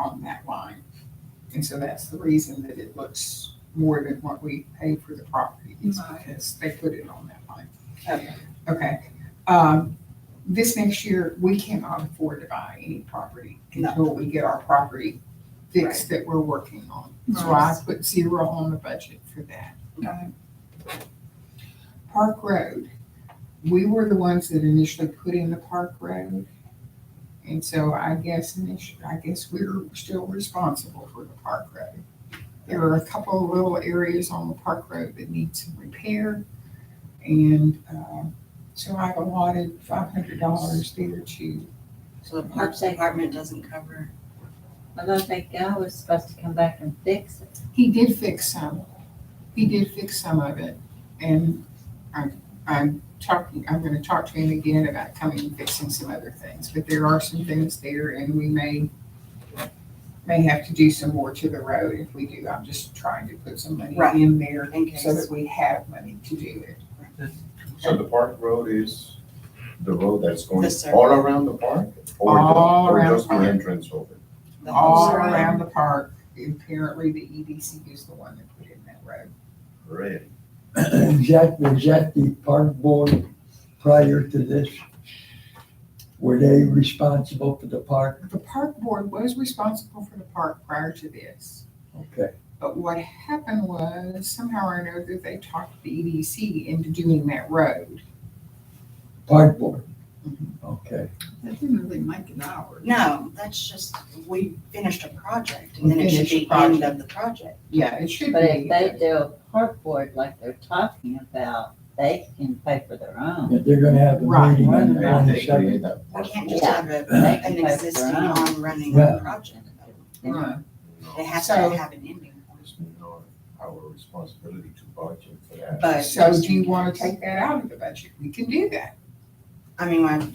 on that line. And so that's the reason that it looks more than what we pay for the property, is Right. because they put it on that line. Okay. Okay, um, this next year, we cannot afford to buy any property No. until we get our property fixed that we're working on. So I put zero on the budget for that. Okay. Park Road, we were the ones that initially put in the Park Road. And so I guess initially, I guess we're still responsible for the Park Road. There are a couple of little areas on the Park Road that need some repair. And, uh, so I've allotted five hundred dollars there to, So the Parks Department doesn't cover. I thought that guy was supposed to come back and fix it. he did fix some. He did fix some of it. And I'm, I'm talking, I'm gonna talk to him again about coming and fixing some other things. But there are some things there and we may, may have to do some more to the road. If we do, I'm just trying to put some money Right. in there In so case. that we have money to do it. So the park road is the road that's going The circle. all around the park? or the- All or around just the park. entrance over? the whole All surround- around the park, apparently the EDC is the one that put in that road. Really? And Jack, was that the park board prior to this? Were they responsible for the park? The park board was responsible for the park prior to this. Okay, But what happened was somehow or another, they talked the EDC into doing that road. park board. Okay, That didn't really make it ours. No, that's just, we finished a project and then it should Finished be a end of the project. Yeah, it should be. But if they do a park board like they're talking about, they can pay for their own. but they're gonna have a Right. meeting on the They create twenty-second. that We park can't just Yeah. have a, They can an pay for existing their own. on-running Yeah. project. Right. They have to So- have an ending point. It's not our responsibility to budget for that. But So just do you in want to case. take that out of the budget? We can do that. I mean, I'm,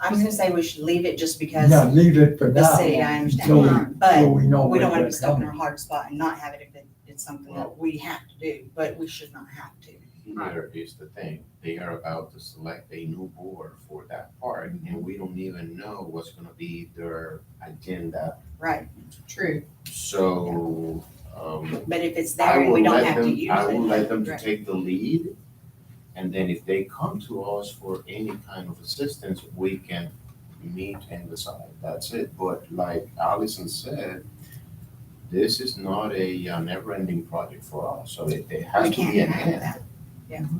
I was gonna say we should leave it just because Now, leave it for the now. city, I until we- understand, until but we know we when don't wanna be they're stuck in coming. a hard spot and not have it if it- it's something that we have to do, but we should not have to. Here is the thing, they are about to select a new board for that park, and we don't even know what's gonna be their agenda. Right, True. So, um, but if it's I there and will we don't let have to them, use I will let them it, to right, take the lead. And then if they come to us for any kind of assistance, we can meet and decide, that's it. But like Allison said, this is not a uh, never-ending project for us, so it, it we has to can't be an have end. that.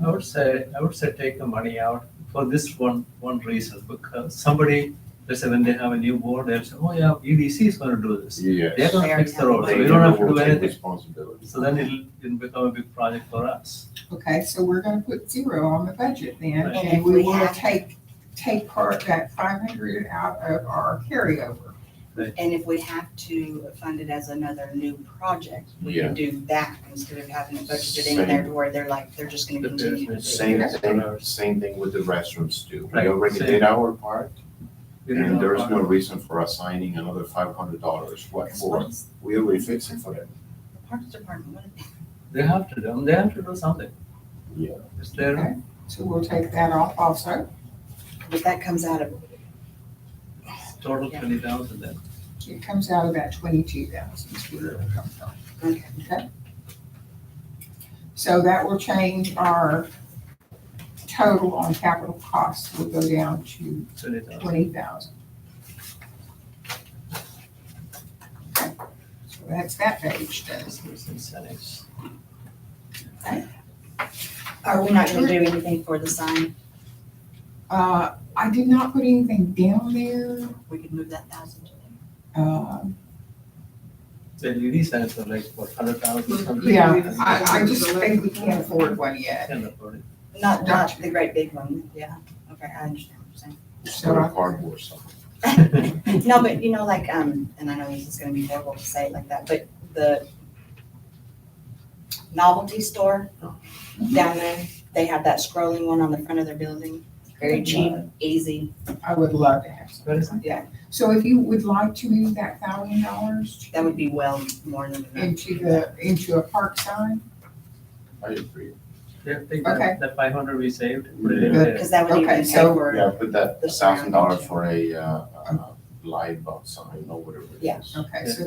I would say, I would say take the money out for this one, one reason, because somebody, let's say when they have a new board, they'll say, oh yeah, EDC is gonna do this. Yes. They're gonna fix the road, so They we don't have to will do take anything. Responsibility. So then it'll, it'll become a big project for us. Okay, so we're going to put zero on the budget then, And Right. and if we we will have- take, take part of that five hundred out of our carryover. And if we have to fund it as another new project, we Yeah. can do that instead of having it budgeted in there to where they're like, they're just gonna The continue to do. it. Same Yes. thing, same thing with the restrooms too. We Right, already same. did our part We don't and there is know no about- reason for us signing another five hundred dollars. What Because for? what's We already fixed it for them. the Parks Department, what- They have to, do. they have to do something. Yeah. It's their, Okay. So we'll take that off also, but that comes out of, total Yeah. twenty thousand then. it comes out of that twenty-two thousand, is where it'll come from. okay, Okay. So that will change our total on capital costs, will go down to Twenty thousand. twenty thousand. So that's that page done. incentives. are we not gonna do anything for the sign? Uh, I did not put anything down there, We could move that thousand to them. Um The EDC signs are like, what, hundred thousand something? yeah, I, I just think we can't afford one yet. Kind of, uh, Not, not the great big one, yeah, okay, I understand what you're saying. It's So not I- a cardboard something. No, but you know, like, um, and I know this is gonna be horrible to say it like that, but the novelty store down there, they have that scrolling one on the front of their building, Uh, very cheap, easy. I would love to have some. Where is it? So if you would like to move that thousand dollars That would be well more than enough. into the, into a park sign, I agree. Yeah, take Okay. that, that five hundred we saved, put it in Yeah. there. Because that would Okay, even pay so- for, Yeah, put that The thousand dollars surrounding, for a, uh, uh, live box sign or whatever it is. Yeah. okay, so